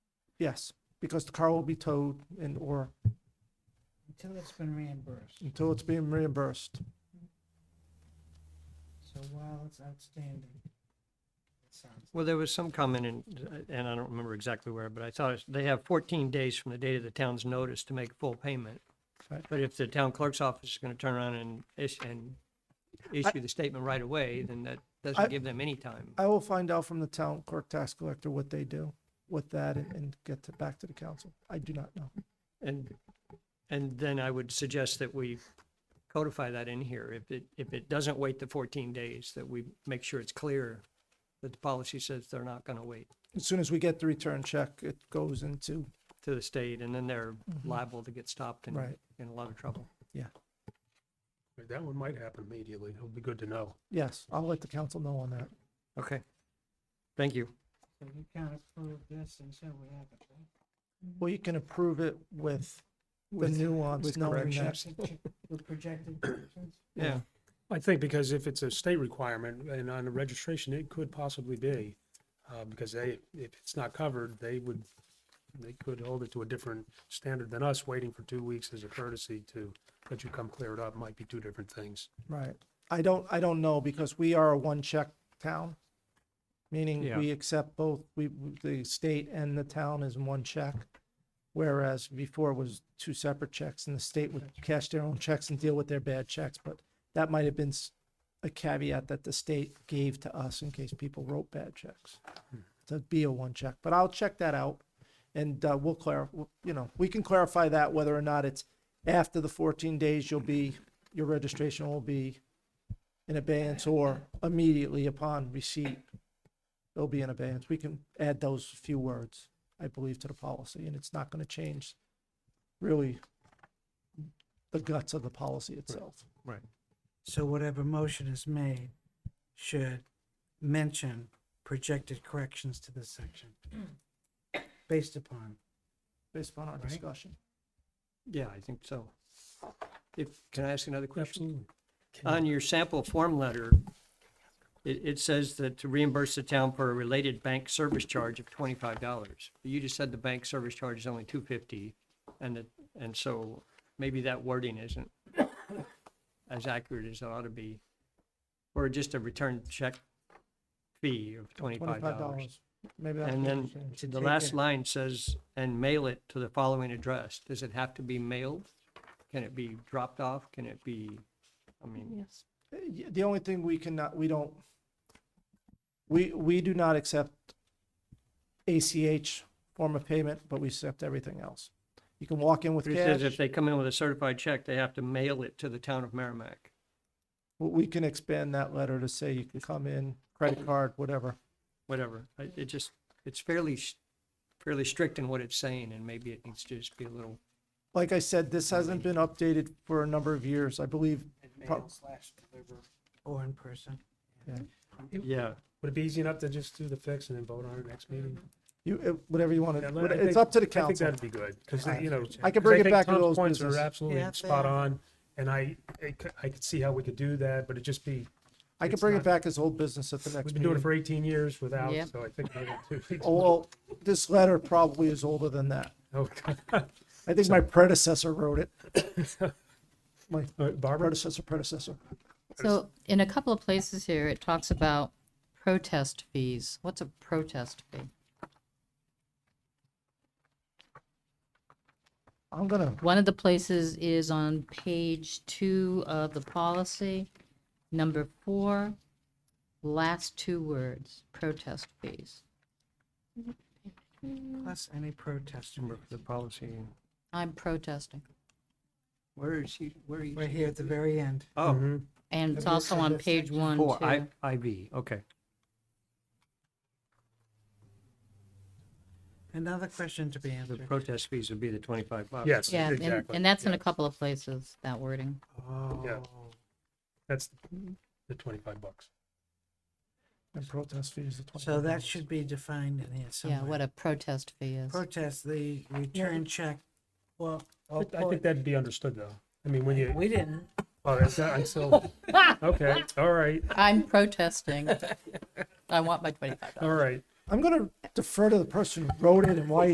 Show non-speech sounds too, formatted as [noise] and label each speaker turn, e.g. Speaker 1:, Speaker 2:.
Speaker 1: Yes, because the car will be towed and or
Speaker 2: Until it's been reimbursed.
Speaker 1: until it's being reimbursed.
Speaker 2: So while it's outstanding, it sounds,
Speaker 3: Well, there was some comment in, and I don't remember exactly where, but I thought it's- they have 14 days from the date of the town's notice to make full payment.
Speaker 1: Right.
Speaker 3: But if the town clerk's office is going to turn around and issue, and issue the statement right away, then that
Speaker 1: I-
Speaker 3: doesn't give them any time.
Speaker 1: I will find out from the town clerk tax collector what they do with that and, and get to, back to the council. I do not know.
Speaker 3: And, and then I would suggest that we codify that in here. If it, if it doesn't wait the 14 days, that we make sure it's clear that the policy says they're not going to wait
Speaker 1: As soon as we get the return check, it goes into,
Speaker 3: to the state, and then they're liable to get stopped and
Speaker 1: Right.
Speaker 3: in a lot of trouble.
Speaker 4: Right, That one might happen immediately. It'll be good to know.
Speaker 1: yes, I'll let the council know on that.
Speaker 3: Okay. Thank you.
Speaker 2: so you can't approve this until we have it, right?
Speaker 1: Well, you can approve it with the
Speaker 3: With-
Speaker 1: nuance,
Speaker 3: with
Speaker 1: knowing that.
Speaker 3: corrections.
Speaker 2: Projected- With [coughs] projected collections?
Speaker 3: Yeah.
Speaker 4: I think because if it's a state requirement and on the registration, it could possibly be, uh, because they, if it's not covered, they would, they could hold it to a different standard than us waiting for two weeks as a courtesy to let you come clear it up. Might be two different things.
Speaker 1: Right. I don't, I don't know because we are a one check town. Meaning
Speaker 3: Yeah.
Speaker 1: we accept both, we, the state and the town is one check. Whereas before it was two separate checks and the state would cash their own checks and deal with their bad checks, but that might have been s- a caveat that the state gave to us in case people wrote bad checks. To be a one check, but I'll check that out and uh, we'll clarify, you know, we can clarify that whether or not it's after the fourteen days, you'll be, your registration will be in abeyance or immediately upon receipt, it'll be in abeyance. We can add those few words, I believe, to the policy, and it's not gonna change really the guts of the policy itself.
Speaker 2: So whatever motion is made should mention projected corrections to this section [coughs] based upon.
Speaker 1: Based upon our
Speaker 2: Right.
Speaker 1: discussion,
Speaker 3: Yeah, I think so. If, can I ask another question? On your sample form letter, it, it says that to reimburse the town for a related bank service charge of twenty-five dollars. You just said the bank service charge is only two fifty, and that, and so maybe that wording isn't as accurate as it ought to be. Or just a return check fee of twenty-five
Speaker 1: twenty-five
Speaker 3: dollars.
Speaker 1: dollars. Maybe that's.
Speaker 3: And
Speaker 1: what
Speaker 3: then
Speaker 1: we should change.
Speaker 3: the
Speaker 2: take
Speaker 3: last
Speaker 2: it.
Speaker 3: line says, and mail it to the following address. Does it have to be mailed? Can it be dropped off? Can it be, I mean,
Speaker 1: Uh, y- The only thing we cannot, we don't, we, we do not accept ACH form of payment, but we accept everything else. You can walk in with
Speaker 3: it says
Speaker 1: cash.
Speaker 3: if they come in with a certified check, they have to mail it to the town of Merrimack.
Speaker 1: W- We can expand that letter to say you can come in, credit card, whatever.
Speaker 3: Whatever. I- It just, it's fairly, s- fairly strict in what it's saying and maybe it needs to just be a little,
Speaker 1: Like I said, this hasn't been updated for a number of years. I believe Pro-
Speaker 2: slash deliver. Or in person.
Speaker 3: yeah.
Speaker 4: Would it be easy enough to just do the fix and then vote on it next meeting?
Speaker 1: you, uh, whatever you want
Speaker 4: Yeah,
Speaker 1: to,
Speaker 4: but I
Speaker 1: it's
Speaker 4: think-
Speaker 1: up to the
Speaker 4: I think
Speaker 1: council.
Speaker 4: that'd be good, because, you know.
Speaker 1: I can
Speaker 4: 'cause
Speaker 1: bring it
Speaker 4: think
Speaker 1: back to
Speaker 4: Tom's
Speaker 1: those
Speaker 4: Points
Speaker 1: businesses.
Speaker 4: are absolutely
Speaker 2: Yeah, they
Speaker 4: spot
Speaker 2: are.
Speaker 4: on, and I, I c- I could see how we could do that, but it'd just be,
Speaker 1: I can
Speaker 4: it's
Speaker 1: bring it
Speaker 4: not-
Speaker 1: back as old business at the next
Speaker 4: we've been doing it
Speaker 1: meeting.
Speaker 4: for eighteen years without,
Speaker 5: Yep.
Speaker 4: so I think. maybe two- [laughs]
Speaker 1: Oh, well, this letter probably is older than that.
Speaker 4: Oh, [laughs] God.
Speaker 1: I think my predecessor wrote it. My
Speaker 4: All right, Barbara,
Speaker 1: predecessor, predecessor.
Speaker 5: So in a couple of places here, it talks about protest fees. What's a protest fee?
Speaker 1: I'm gonna
Speaker 5: One of the places is on page two of the policy, number four, last two words, protest fees.
Speaker 2: Plus any protest.
Speaker 3: Remember The policy,
Speaker 5: I'm protesting.
Speaker 3: where is he, where are you?
Speaker 2: We're here at the very end.
Speaker 4: Mm-hmm.
Speaker 3: Oh,
Speaker 5: And it's
Speaker 2: Have you
Speaker 5: also
Speaker 2: seen
Speaker 5: on
Speaker 2: this
Speaker 5: page
Speaker 2: section?
Speaker 5: one,
Speaker 3: four, I,
Speaker 5: too.
Speaker 3: IV, okay.
Speaker 2: Another question to be
Speaker 3: The
Speaker 2: answered.
Speaker 3: protest fees would be the twenty-five bucks.
Speaker 4: yes,
Speaker 5: Yeah, and,
Speaker 4: exactly.
Speaker 5: and that's in a
Speaker 4: Yeah.
Speaker 5: couple of places, that wording.
Speaker 2: Oh,
Speaker 4: That's the twenty-five bucks.
Speaker 1: And protest fees of twenty.
Speaker 2: so that should be defined in here
Speaker 5: Yeah,
Speaker 2: somewhere.
Speaker 5: what a protest fee is.
Speaker 2: Protest the return check. Well,
Speaker 4: I I think that'd be understood, though. I mean, when you,
Speaker 2: we didn't.
Speaker 4: oh, that's, not- I'm [laughs] still, okay, all right,
Speaker 5: I'm protesting. [laughs] I want my twenty-five dollars.
Speaker 4: all right.
Speaker 1: I'm gonna defer to the person who wrote it and why